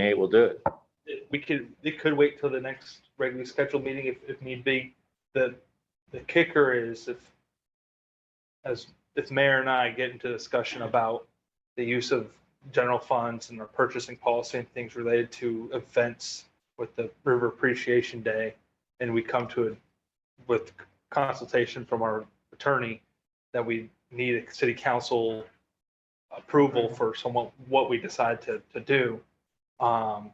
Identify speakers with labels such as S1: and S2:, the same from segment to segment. S1: Hey, we'll do it.
S2: we could, it could wait till the next regularly scheduled meeting if, if need be. The, the kicker is if, as, if mayor and I get into discussion about the use of general funds and our purchasing policy and things related to events with the River Appreciation Day, and we come to it with consultation from our attorney, that we need a city council approval
S1: Mm-hmm.
S2: for somewhat, what we decide to, to do. Um,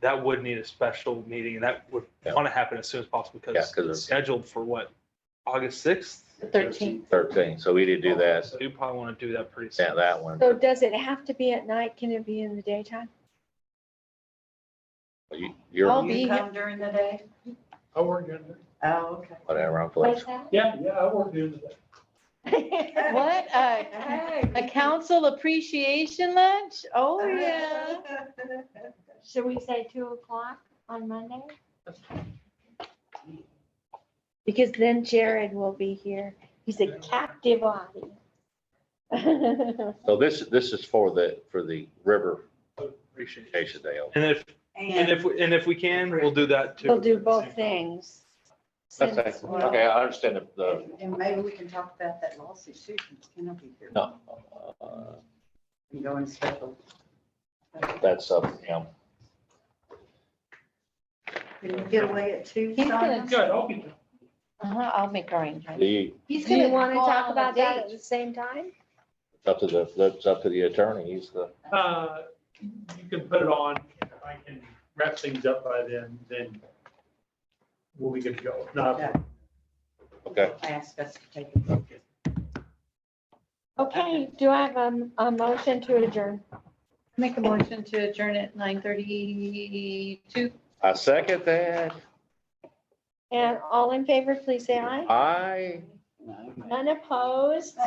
S2: that would need a special meeting, and that would
S1: Yeah.
S2: want to happen as soon as possible
S1: Yeah,
S2: because
S1: 'cause
S2: it's
S1: of-
S2: scheduled for what, August sixth?
S3: The 13th.
S1: Thirteen, so we need to do that,
S2: You probably want to do that pretty soon.
S1: yeah, that one.
S3: So does it have to be at night? Can it be in the daytime?
S1: You-
S3: I'll
S1: You're,
S3: be-
S4: You come during the day?
S5: I work during the,
S4: Oh, okay.
S1: whatever, I'm flexible.
S5: yeah, yeah, I work during the day.
S3: What, a, a council appreciation lunch? Oh, yeah.
S6: Should we say two o'clock on Monday?
S3: Because then Jared will be here. He's a captive audience.
S1: So this, this is for the, for the river
S2: Appreciate it.
S1: Acacia Dale.
S2: And if, and if, and if we can, we'll do that too.
S3: He'll do both things.
S1: Okay,
S3: Since-
S1: okay, I understand the- the,
S4: And maybe we can talk about that lawsuit, Susan cannot be here.
S1: no, uh,
S4: And go in special.
S1: that's up, to him.
S4: Can you get away at two?
S3: He's gonna-
S5: Good, I'll be there.
S3: Uh-huh, I'll make arrangements.
S1: do you,
S3: He's
S6: Do
S3: gonna
S6: you
S3: want
S6: wanna
S3: to
S6: talk
S3: talk
S6: about
S3: about
S6: that
S3: that
S6: at
S3: at the same time?
S1: it's up to the, that's up to the attorney, he's the,
S5: Uh, You can put it on, if I can wrap things up by then, then we'll be good to go. If Not,
S1: okay.
S4: Ask us to take a look.
S3: Okay, do I have a, a motion to adjourn?
S6: Make a motion to adjourn at nine thirty-two.
S1: I second that,
S3: And all in favor, please say aye.
S1: I.
S4: No.
S3: None opposed?